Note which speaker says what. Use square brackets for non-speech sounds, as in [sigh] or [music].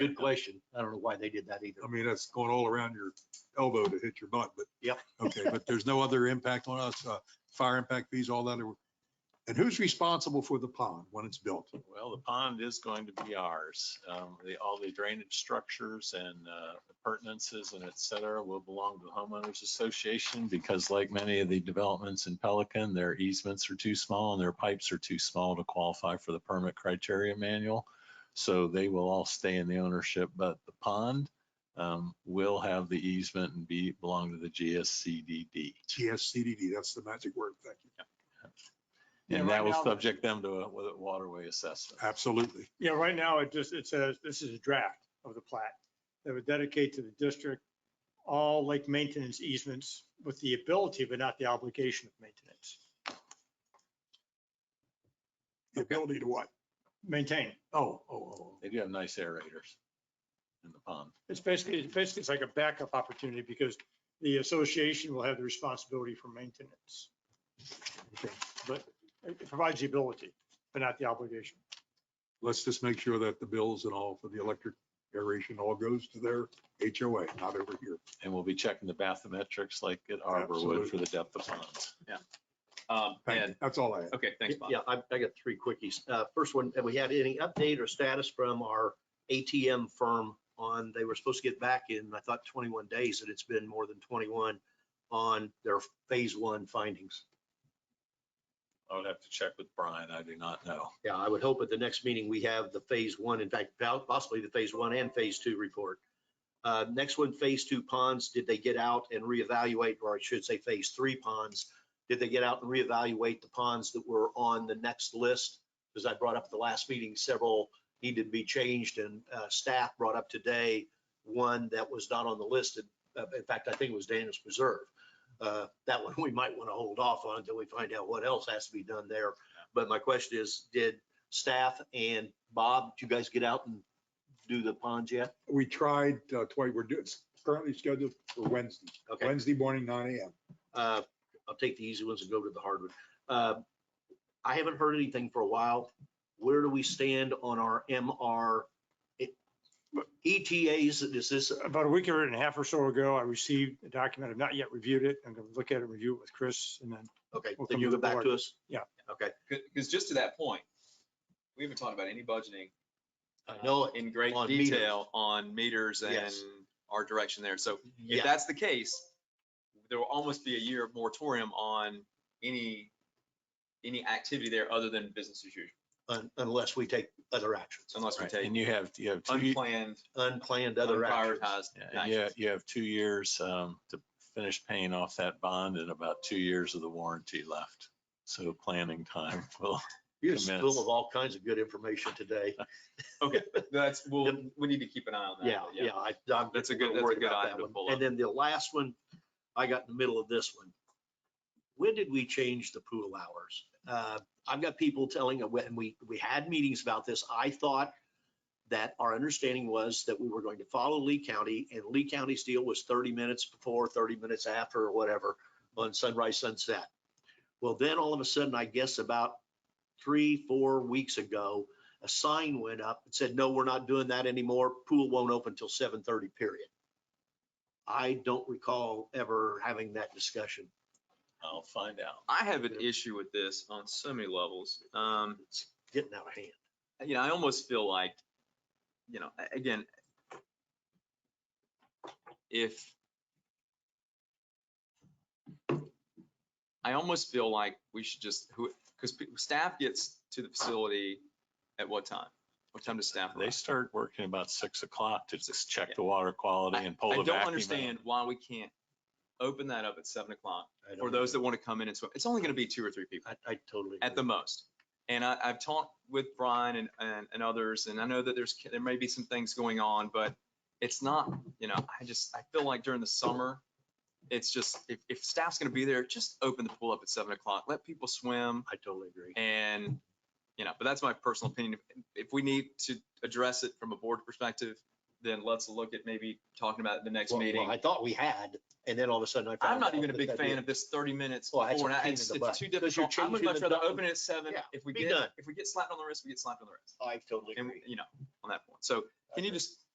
Speaker 1: Good question. I don't know why they did that either.
Speaker 2: I mean, that's going all around your elbow to hit your butt, but.
Speaker 1: Yep.
Speaker 2: [laughs] Okay, but there's no other impact on us, uh, fire impact fees, all that. are- And who's responsible for the pond when it's built?
Speaker 3: Well, the pond is going to be ours. Um, the, all the drainage structures and, uh, appurtenances and et cetera will belong to the homeowners association because like many of the developments in Pelican, their easements are too small and their pipes are too small to qualify for the permit criteria manual. So they will all stay in the ownership, but the pond, um, will have the easement and be, belong to the GSCDD.
Speaker 2: GSCDD, that's the magic word. Thank you.
Speaker 4: Yeah,
Speaker 3: And
Speaker 4: right
Speaker 3: that will
Speaker 4: now- Uh,
Speaker 3: subject them to a wa- waterway assessment.
Speaker 2: Absolutely.
Speaker 4: Yeah, right now, it just, it says, this is a draft of the plat that would dedicate to the district all lake maintenance easements with the ability, but not the obligation of maintenance,
Speaker 2: The ability to what?
Speaker 4: maintain.
Speaker 2: Oh, oh, oh, oh.
Speaker 3: They do have nice aerators in the pond.
Speaker 4: It's basically, it's basically, it's like a backup opportunity because the association will have the responsibility for maintenance. But it provides the ability, but not the obligation.
Speaker 2: let's just make sure that the bills and all for the electric aeration all goes to their HOA, not over here.
Speaker 3: And we'll be checking the bathymetrics like at Arbor would for the depth of ponds.
Speaker 5: Um,
Speaker 2: Thank
Speaker 5: and,
Speaker 2: you. That's all I have.
Speaker 5: okay, thanks, Bob.
Speaker 1: Yeah, I, I got three quickies. Uh, first one, have we had any update or status from our ATM firm on, they were supposed to get back in, I thought twenty-one days, and it's been more than twenty-one on their phase one findings.
Speaker 3: I would have to check with Brian. I do not know.
Speaker 1: Yeah, I would hope at the next meeting, we have the phase one, in fact, po- possibly the phase one and phase two report. Uh, Next one, phase two ponds, did they get out and reevaluate, or I should say, phase three ponds? Did they get out and reevaluate the ponds that were on the next list? Because I brought up at the last meeting, several needed to be changed, and uh, staff brought up today one that was not on the list. and, uh, In fact, I think it was Daniels Preserve. Uh, That one, [laughs] we might want to hold off on until we find out what else has to be done there. But my question is, did staff and Bob, did you guys get out and do the ponds yet?
Speaker 2: We tried uh, twice, we're doing, it's currently scheduled for Wednesday,
Speaker 1: Okay,
Speaker 2: Wednesday morning, nine AM.
Speaker 1: uh, I'll take the easy ones and go to the hard one. Uh, I haven't heard anything for a while. Where do we stand on our MR? it- ETAs, is this,
Speaker 4: About a week or and a half or so ago, I received a document. I've not yet reviewed it. I'm going to look at it, review it with Chris and then
Speaker 1: okay,
Speaker 4: We'll
Speaker 1: then
Speaker 4: come
Speaker 1: you
Speaker 4: to
Speaker 1: go
Speaker 4: the
Speaker 1: back
Speaker 4: board.
Speaker 1: to us?
Speaker 4: Yeah.
Speaker 1: Okay,
Speaker 5: Because just to that point, we haven't talked about any budgeting.
Speaker 1: I know
Speaker 5: uh,
Speaker 1: it
Speaker 5: In great
Speaker 1: on meters.
Speaker 5: detail on meters and
Speaker 1: Yes.
Speaker 5: our direction there. So if
Speaker 1: yeah,
Speaker 5: that's the case, there will almost be a year of moratorium on any, any activity there other than business as usual,
Speaker 1: un- unless we take other actions,
Speaker 5: unless we take
Speaker 3: And you have, you have two,
Speaker 5: unplanned,
Speaker 1: unplanned other actions.
Speaker 5: unprioritized.
Speaker 3: yeah, you have- you have two years um, to finish paying off that bond and about two years of the warranty left. So planning time [laughs] will
Speaker 1: You're just
Speaker 3: commence.
Speaker 1: full of all kinds of good information today.
Speaker 5: Okay, that's, we'll,
Speaker 1: Yep.
Speaker 5: we need to keep an eye on that.
Speaker 1: Yeah,
Speaker 5: but
Speaker 1: yeah, I, I'm.
Speaker 5: That's a
Speaker 1: we're
Speaker 5: good- that's a
Speaker 1: worried
Speaker 5: good
Speaker 1: about
Speaker 5: item
Speaker 1: that
Speaker 5: to
Speaker 1: one.
Speaker 5: pull up.
Speaker 1: And then the last one, I got in the middle of this one. When did we change the pool hours? Uh, I've got people telling, uh, when we, we had meetings about this, I thought that our understanding was that we were going to follow Lee County and Lee County's deal was thirty minutes before, thirty minutes after, or whatever, on sunrise, sunset. Well, then all of a sudden, I guess about three, four weeks ago, a sign went up and said, no, we're not doing that anymore. Pool won't open till seven thirty, period. I don't recall ever having that discussion.
Speaker 3: I'll find out.
Speaker 5: I have an
Speaker 1: Yep.
Speaker 5: issue with this on so many levels. Um,
Speaker 1: It's getting out of hand.
Speaker 5: you know, I almost feel like, you know, a- again, if I almost feel like we should just, who, because staff gets to the facility at what time? What time does staff
Speaker 3: They
Speaker 5: arrive?
Speaker 3: start working about six o'clock to just check the water quality and pull
Speaker 5: I
Speaker 3: the vacuum
Speaker 5: don't
Speaker 3: out.
Speaker 5: understand why we can't open that up at seven o'clock
Speaker 1: I
Speaker 5: for
Speaker 1: don't
Speaker 5: those
Speaker 1: know.
Speaker 5: that want to come in and swim. It's only going to be two or three people.
Speaker 1: I, I totally.
Speaker 5: at the
Speaker 1: agree.
Speaker 5: most. And I, I've talked with Brian and, and, and others, and I know that there's, there may be some things going on, but it's not, you know, I just, I feel like during the summer, it's just, if, if staff's gonna be there, just open the pool up at seven o'clock, let people swim
Speaker 1: I totally agree.
Speaker 5: and, you know, but that's my personal opinion. If- If we need to address it from a board perspective, then let's look at maybe talking about it at the next
Speaker 1: Well, well,
Speaker 5: meeting.
Speaker 1: I thought we had, and then all of a sudden I.
Speaker 5: I'm
Speaker 1: found
Speaker 5: not
Speaker 1: out
Speaker 5: even a
Speaker 1: that
Speaker 5: big
Speaker 1: that
Speaker 5: fan
Speaker 1: did.
Speaker 5: of this thirty minutes
Speaker 1: Well, that's
Speaker 5: before.
Speaker 1: a
Speaker 5: and I-
Speaker 1: pain in
Speaker 5: It's
Speaker 1: the
Speaker 5: it's
Speaker 1: butt,
Speaker 5: too
Speaker 1: 'cause you're
Speaker 5: difficult. I would
Speaker 1: changing
Speaker 5: much
Speaker 1: the
Speaker 5: rather
Speaker 1: double-
Speaker 5: open it at seven.
Speaker 1: Yeah,
Speaker 5: If we
Speaker 1: be
Speaker 5: get,
Speaker 1: done.
Speaker 5: if we get slapped on the wrist, we get slapped on the wrist.
Speaker 1: I totally
Speaker 5: And,
Speaker 1: agree.
Speaker 5: you know, on that point. So can you just